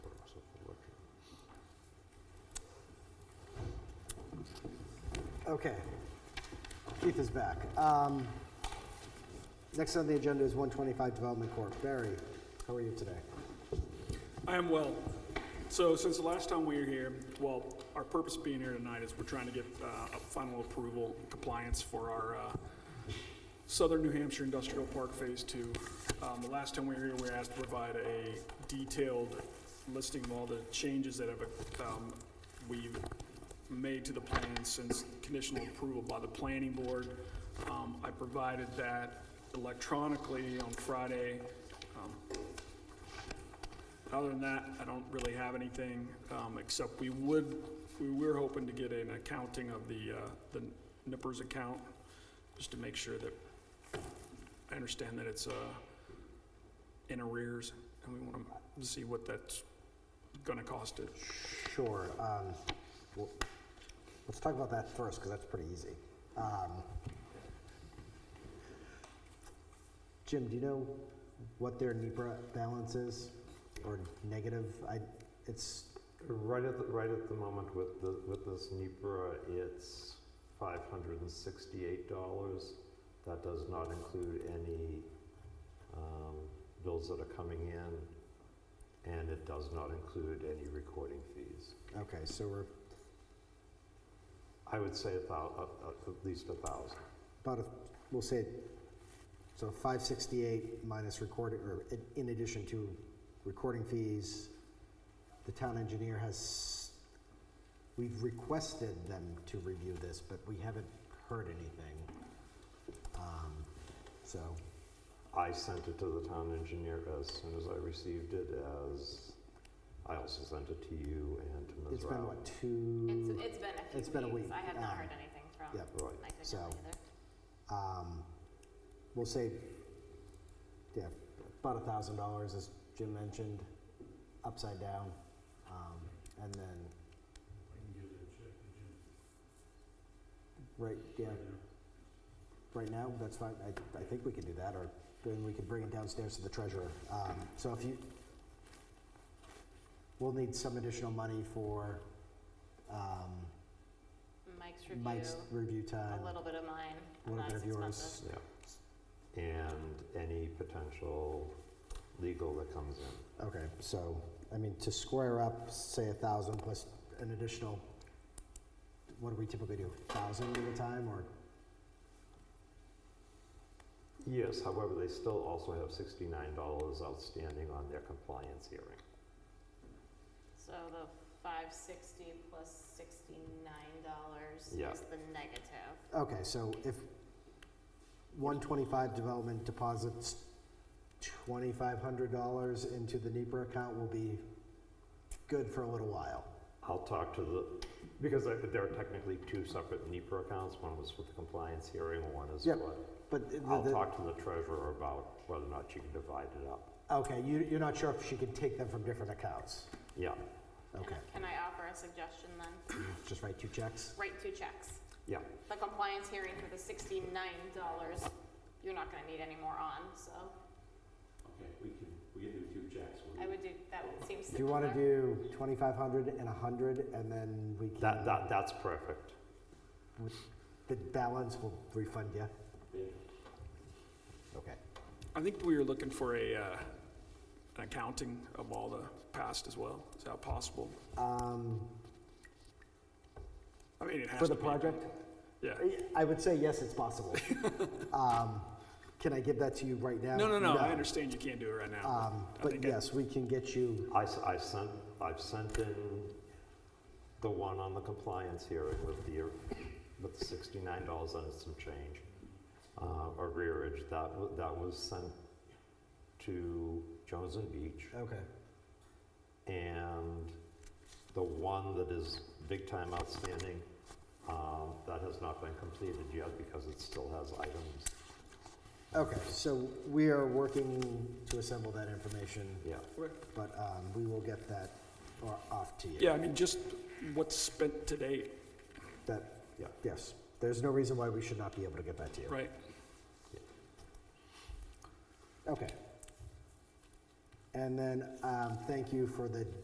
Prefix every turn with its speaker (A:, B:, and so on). A: Okay. Keith is back. Um, Next on the agenda is 125 Development Corp. Barry, how are you today?
B: I am well. So since the last time we were here, well, our purpose of being here tonight is we're trying to get uh, a final approval compliance for our uh, Southern New Hampshire Industrial Park Phase Two. Um, The last time we were here, we were asked to provide a detailed listing of all the changes that have, um, we've made to the plan since conditional approval by the planning board. Um, I provided that electronically on Friday. Um, other than that, I don't really have anything, um, except we would, we were hoping to get an accounting of the, uh, the Nippers account, just to make sure that, I understand that it's, uh, in arrears, and we want to see what that's gonna cost it.
A: Sure. um, well, Let's talk about that first, because that's pretty easy. Um, Jim, do you know what their E NEPR balance is? Or negative? I, it's,
C: Right at, the- right at the moment with the, with this NEPR, it's five hundred and sixty-eight dollars. That does not include any, um, bills that are coming in, and it does not include any recording fees.
A: okay, so we're
C: I would say about, at, at least a thousand.
A: About, a we'll say, so 568 minus recording, or in- in addition to recording fees, the town engineer has, we've requested them to review this, but we haven't heard anything. Um, So,
C: I sent it to the town engineer as soon as I received it, as, I also sent it to you and to Ms.
A: it's been,
C: Rao.
A: what, two?
D: It's, it's been a few
A: It's been a
D: weeks.
A: week,
D: I have not
A: um,
D: heard anything from
A: yeah,
C: Right.
D: my family
A: so-
D: either.
A: um, We'll say, yeah, about $1,000, as Jim mentioned, upside down. um, And then Right, yeah. Right now, that's fine, I, I think we can do that, or then we can bring it downstairs to the treasurer. Um, So if you, we'll need some additional money for um,
D: Mike's review,
A: Mike's review time.
D: a little bit of mine,
A: a little
D: not
A: bit
D: as
A: of yours.
D: expensive.
C: Yeah. And any potential legal that comes in.
A: Okay, so, I mean, to square up, say a thousand plus an additional, what do we typically do, thousand at a time, or?
C: Yes, however, they still also have sixty-nine dollars outstanding on their compliance hearing.
D: So the five sixty plus sixty-nine dollars
C: Yeah.
D: is the negative.
A: Okay, so if one twenty-five development deposits twenty-five hundred dollars into the NEPR account will be good for a little while.
C: I'll talk to the, because I- there are technically two separate NEPR accounts, one was for the compliance hearing, one is
A: Yep.
C: for.
A: But the,
C: I'll
A: the-
C: talk to the treasurer about whether or not she can divide it up.
A: okay, you, you're not sure if she can take them from different accounts.
C: Yeah,
D: Can-
A: Okay,
D: Can I offer a suggestion then?
A: just write two checks.
D: Write two checks.
C: yeah,
D: The compliance hearing for the sixty-nine dollars, you're not gonna need any more on, so
E: Okay, we can, we can do two checks. We'll
D: I
E: do-
D: would do, that would seem
A: Do you want to
D: simpler.
A: do twenty-five hundred and a hundred, and then we can?
C: that, that, that's perfect.
A: The balance will refund you. Okay.
B: I think we were looking for a, uh, an accounting of all the past as well. Is that possible?
A: Um,
B: I mean, it has
A: for
B: to be.
A: the project?
B: Yeah.
A: I would say yes, it's possible. Um, Can I give that to you right now?
B: No, no, no, I understand you can't do it right now.
A: Um,
B: I
A: But
B: think I-
A: yes, we can get you,
C: I, s- I sent, I've sent in the one on the compliance hearing with the, with the sixty-nine dollars and some change, uh, arrearage, that was, that was sent to Jones and Beach,
A: okay,
C: and the one that is big time outstanding, um, that has not been completed yet because it still has items,
A: okay, so we are working to assemble that information,
C: yeah.
B: Okay.
A: but um, we will get that or off to you.
B: Yeah, I mean, just what's spent to date,
A: That,
C: Yeah.
A: yes, there's no reason why we should not be able to get that to you.
B: right?
A: Okay. And then, um, thank you for the